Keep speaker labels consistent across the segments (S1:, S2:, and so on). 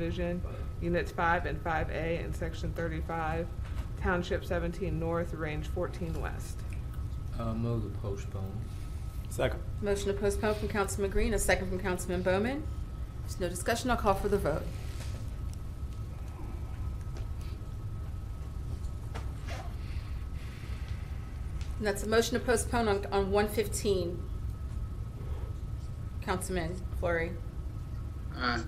S1: Division, Units 5 and 5A in Section 35, Township 17 North, Range 14 West.
S2: I'll Uh, move to postpone.
S3: Second.
S4: Motion to postpone from Councilman Green, a second from Councilman Bowman. There's no discussion, I'll call for the vote. And that's a motion to postpone on, on one fifteen. Councilman Flurry,
S5: Aye.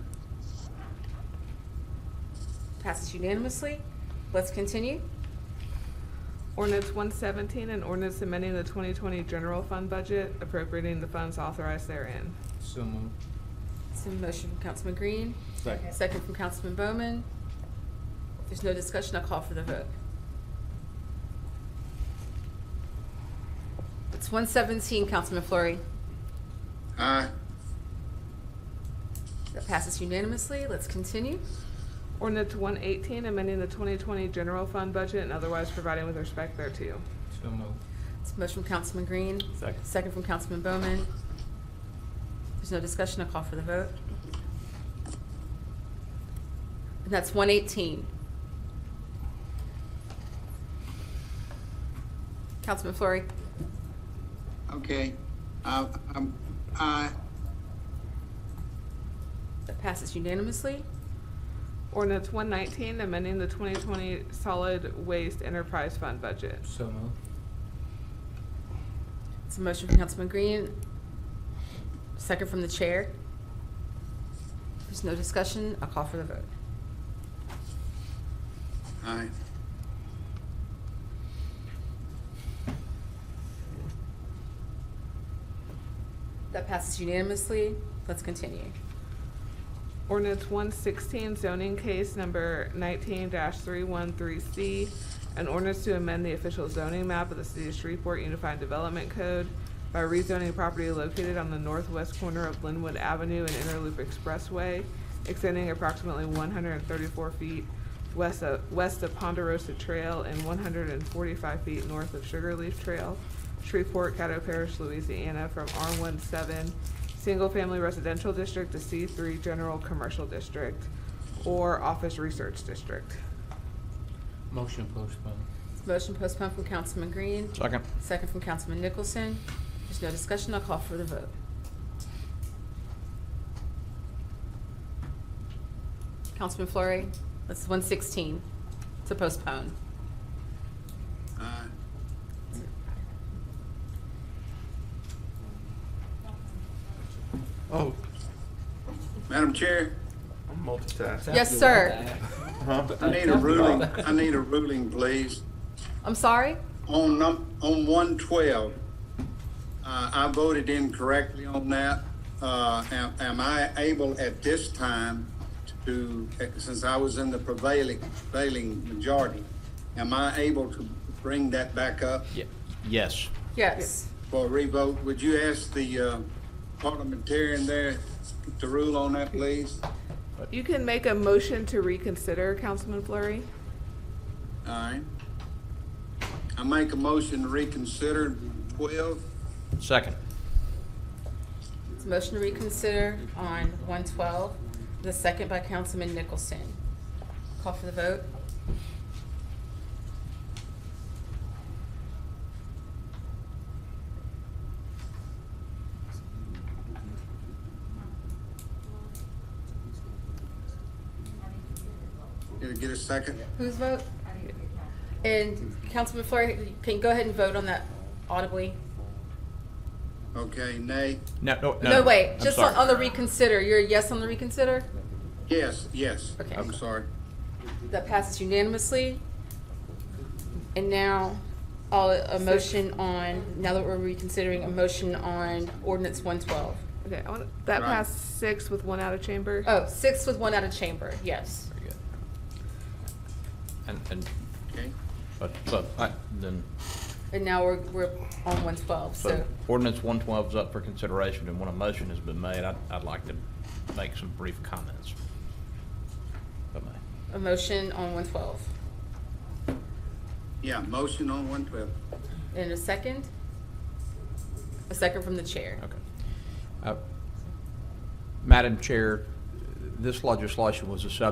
S4: passes unanimously. Let's continue.
S1: Ordinance 117, an ordinance amending the 2020 general fund budget appropriating the funds authorized therein.
S2: So moved.
S4: It's a motion from Councilman Green,
S3: Second.
S4: second from Councilman Bowman. If there's no discussion, I'll call for the vote. It's one seventeen, Councilman Flurry.
S5: Aye.
S4: That passes unanimously. Let's continue.
S1: Ordinance 118, amending the 2020 general fund budget and otherwise providing with respect thereto.
S2: So moved.
S4: It's a motion from Councilman Green,
S3: Second.
S4: second from Councilman Bowman. There's no discussion, I'll call for the vote. And that's one eighteen. Councilman Flurry?
S5: Okay. Uh, um, aye.
S4: That passes unanimously.
S1: Ordinance 119, amending the 2020 solid waste enterprise fund budget.
S2: So moved.
S4: It's a motion from Councilman Green, second from the chair. There's no discussion, I'll call for the vote.
S5: Aye.
S4: That passes unanimously. Let's continue.
S1: Ordinance one sixteen zoning case number nineteen three one three C. An ordinance to amend the official zoning map of the city of Shreveport Unified Development Code by rezoning property located on the northwest corner of Linwood Avenue and Interloop Expressway, extending approximately one hundred and thirty-four feet west of, west of Ponderosa Trail and one hundred and forty-five feet north of Sugarleaf Trail, Shreveport, Caddo Parish, Louisiana, from R 17 single-family residential district to C three general commercial district or office research district.
S2: Motion postpone.
S4: Motion postponed from Councilman Green,
S3: Second.
S4: second from Councilman Nicholson. There's no discussion, I'll call for the vote. Councilman Flurry, that's one sixteen to postpone.
S5: Aye.
S3: Oh,
S5: Madam Chair,
S3: I'm multitasking.
S4: Yes, sir.
S5: I need a ruling, I need a ruling, please.
S4: I'm sorry?
S5: On num, on one twelve, uh, I voted incorrectly on that. Uh, am, am I able at this time to, since I was in the prevailing, prevailing majority, am I able to bring that back up?
S6: Yes.
S4: Yes.
S5: for a revote, would you ask the uh, parliamentarian there to rule on that, please? All
S1: You can make a motion to reconsider, Councilman Flurry.
S5: right. I make a motion to reconsider twelve.
S6: Second.
S4: It's a motion to reconsider on one twelve, the second by Councilman Nicholson. Call for the vote.
S5: Did it get a second?
S4: Whose vote? And Councilman Flurry, can you go ahead and vote on that audibly?
S5: Okay, nay.
S6: No, no, no.
S4: No, wait,
S6: I'm
S4: just
S6: sorry.
S4: on on the reconsider. You're a yes on the reconsider?
S5: Yes, yes.
S4: Okay.
S5: I'm sorry.
S4: That passes unanimously. And now, all, a motion on, now that we're reconsidering, a motion on ordinance one twelve.
S1: Okay, I want, that
S5: Right.
S1: passed six with one out of chamber.
S4: Oh, six with one out of chamber, yes.
S6: Very good. And, and,
S5: Okay.
S6: but, but, I- then,
S4: And now we're, we're on one twelve,
S6: so
S4: so.
S6: ordinance one twelve is up for consideration, and when a motion has been made, I'd, I'd like to make some brief comments. If I may.
S4: A motion on one twelve.
S5: Yeah, motion on one twelve.
S4: And a second? A second from the chair.
S6: Okay. Uh, Madam Chair, this legislation was a subject